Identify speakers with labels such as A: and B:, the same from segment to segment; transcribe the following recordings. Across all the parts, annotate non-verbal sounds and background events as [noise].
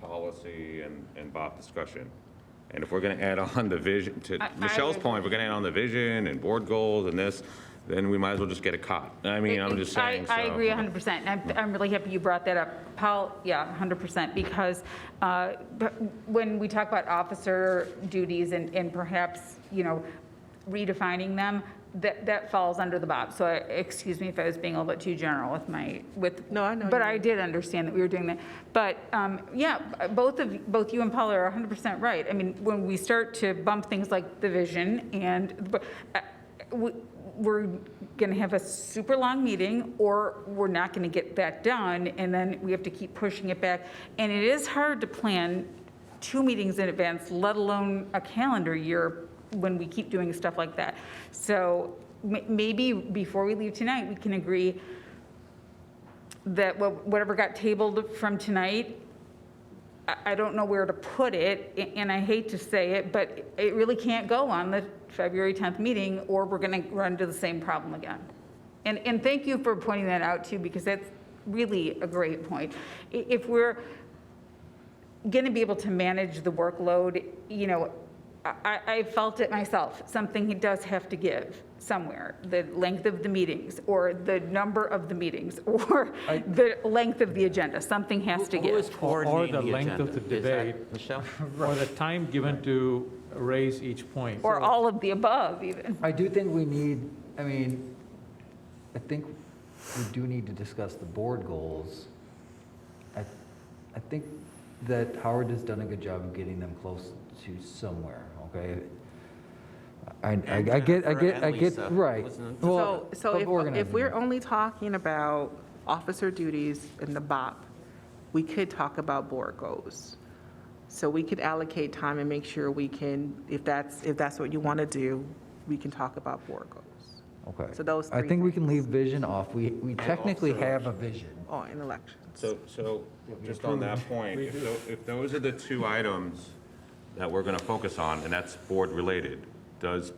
A: policy and, and Bob discussion. And if we're gonna add on the vision, to
B: I- I
A: Michelle's
B: would-
A: point, if we're gonna add on the vision and board goals and this, then we might as well just get it caught. I mean, I'm just
B: I-
A: saying,
B: I
A: so- Mm-hmm.
B: agree 100%. and I'm- I'm really happy you brought that up. Paul, yeah, 100%, because uh, but when we talk about officer duties and and perhaps, you know, redefining them, that that falls under the BOP. So I- excuse me if I was being a little bit too general with my, with.
C: No, I know
B: But
C: you-
B: I did understand that we were doing that. But um, yeah, both of, both you and Paul are 100% right. I mean, when we start to bump things like the vision and, but, uh, we- we're going to have a super long meeting, or we're not going to get that done, and then we have to keep pushing it back. And it is hard to plan two meetings in advance, let alone a calendar year, when we keep doing stuff like that. So m- maybe before we leave tonight, we can agree that wha- whatever got tabled from tonight, I- I don't know where to put it, a- and I hate to say it, but it really can't go on the February 10th meeting, or we're going to run into the same problem again. And, and thank you for pointing that out, too, because that's really a great point. I- If we're going to be able to manage the workload, you know, I, I I felt it myself, something he does have to give somewhere, the length of the meetings, or the number of the meetings, [laughs] or
D: I-
B: the length of the agenda, something has to
E: Who- who
B: give.
E: is coordinating
D: Or the length of
E: agenda?
D: the
E: Is that
D: debate.
E: Michelle?
D: or the time given to raise each point.
B: Or all of the above, even.
F: I do think we need, I mean, I think we do need to discuss the board goals. I, I think that Howard has done a good job of getting them close to somewhere, okay? I, I I get, I get, I
E: And
F: get,
E: Lisa,
F: right.
E: wasn't
F: Well,
C: So, so
F: of
C: if, if
F: organizing
C: we're
F: them.
C: only talking about officer duties in the BOP, we could talk about board goals. So we could allocate time and make sure we can, if that's, if that's what you want to do, we can talk about board goals
F: Okay.
C: so those
F: I
C: three
F: think we can
C: things.
F: leave vision off. We, we technically
A: also-
F: have a vision.
C: on in elections.
A: So, so, just on that point, if tho- if those are the two items that we're gonna focus on, and that's board-related, does,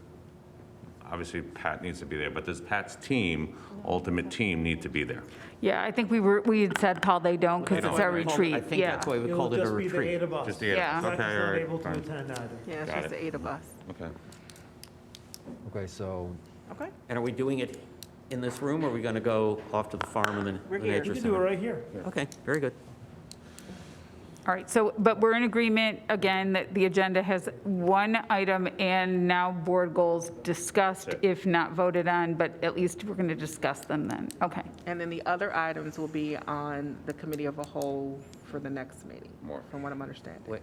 A: obviously Pat needs to be there, but does Pat's team, ultimate team, need to be there?
B: Yeah, I think we were, we had said, Paul, they don't, because
A: They
B: it's our
A: don't, right.
E: I
B: retreat,
E: think
B: yeah.
E: that's why we
G: It'll
E: called it a
G: just be the eight
E: retreat.
G: of us.
A: Just the eight
B: Yeah.
A: of us?
G: Zach is
A: Okay, all
G: not
A: right,
G: able to
A: fine.
G: attend either.
C: Yeah, it's
A: Got
C: just
A: it.
C: the eight of us.
A: Okay.
F: Okay, so
C: Okay,
E: And are we doing it in this room, or are we going to go off to the farm and then
C: We're
E: the
C: here.
E: nature
C: You
G: You do it
E: center?
G: right here.
E: Okay, very good.
B: All right, so, but we're in agreement, again, that the agenda has one item and now board goals discussed,
A: Sure.
B: if not voted on, but at least we're going to discuss them then. Okay,
C: and then the other items will be on the committee of a whole for the next meeting,
A: More.
C: from what I'm understanding.
E: Wait,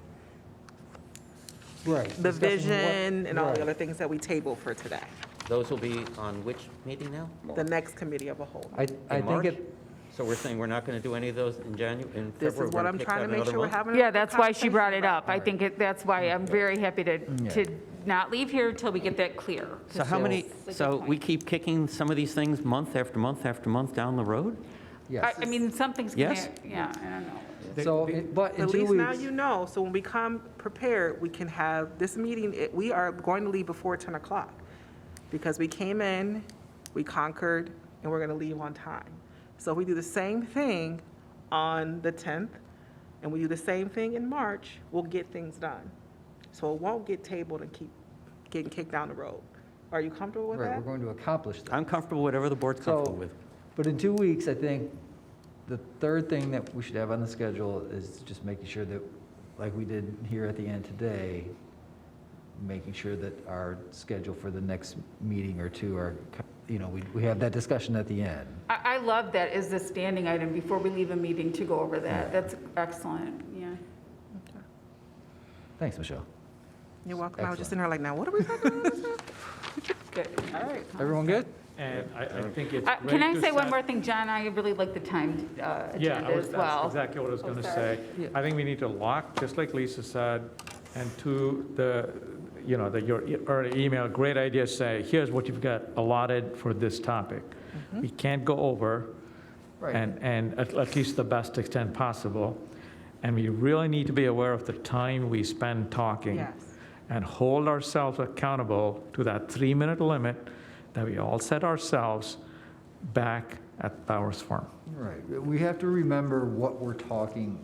F: Right.
C: The
F: discussing what-
C: vision and all
F: right.
C: the other things that we tabled for today,
E: Those will be on which meeting now?
C: the next committee of a whole.
F: I, I
E: In
F: think
E: March?
F: it,
E: So we're saying we're not going to do any of those in January, in February?
C: This
E: we're
C: is what
E: gonna
C: I'm
E: kick
C: trying
E: that
C: to make
E: another
C: sure we're
E: month?
C: having.
B: yeah,
C: another
B: that's why she brought it
C: conversation
B: up. I think it- that's why I'm very happy to, to not leave here until we get that clear. 'cause
E: So how many,
B: that's a good
E: so
B: point.
E: we keep kicking some of these things month after month after month down the road?
B: I,
F: yes.
B: I mean, something's going
E: Yes?
B: yeah, I don't know.
F: So, it- but in
C: At
F: two
C: least now
F: weeks,
C: you know, so when we come prepared, we can have this meeting, it- we are going to leave before 10 o'clock. Because we came in, we conquered, and we're going to leave on time. So if we do the same thing on the 10th, and we do the same thing in March, we'll get things done. So it won't get tabled and keep getting kicked down the road. Are you comfortable with
F: right,
C: that?
F: we're going to accomplish that.
E: I'm comfortable whatever the board's
F: So,
E: comfortable with.
F: But in two weeks, I think the third thing that we should have on the schedule is just making sure that, like we did here at the end today, making sure that our schedule for the next meeting or two are, co- you know, we, we have that discussion at the end.
B: I, I love that as a standing item before we leave a meeting to go over that. That's excellent, yeah.
F: Thanks, Michelle.
C: You're welcome. I was just in there like, now what are we
E: [laughs]
C: talking about?
B: Good. All right.
F: Everyone good?
D: And I, I think it's
B: Uh,
D: great
B: Can I
D: to
B: say one
D: set-
B: more thing, John? I really like the timed uh,
D: Yeah,
B: agenda
D: I was,
B: as
D: that's
B: well.
D: exactly what I was
B: Oh,
D: going to
B: sorry.
D: say.
F: Yeah.
D: I think we need to lock, just like Lisa said, and to the, you know, the, your, e- or email, great idea, say, here's what you've got allotted for this topic.
B: Mm-hmm.
D: We can't go over,
F: Right.
D: and, and at, at least the best extent possible. And we really need to be aware of the time we spend talking.
C: Yes.
D: And hold ourselves accountable to that three-minute limit that we all set ourselves back at Bowers Farm.
F: Right. We have to remember what we're talking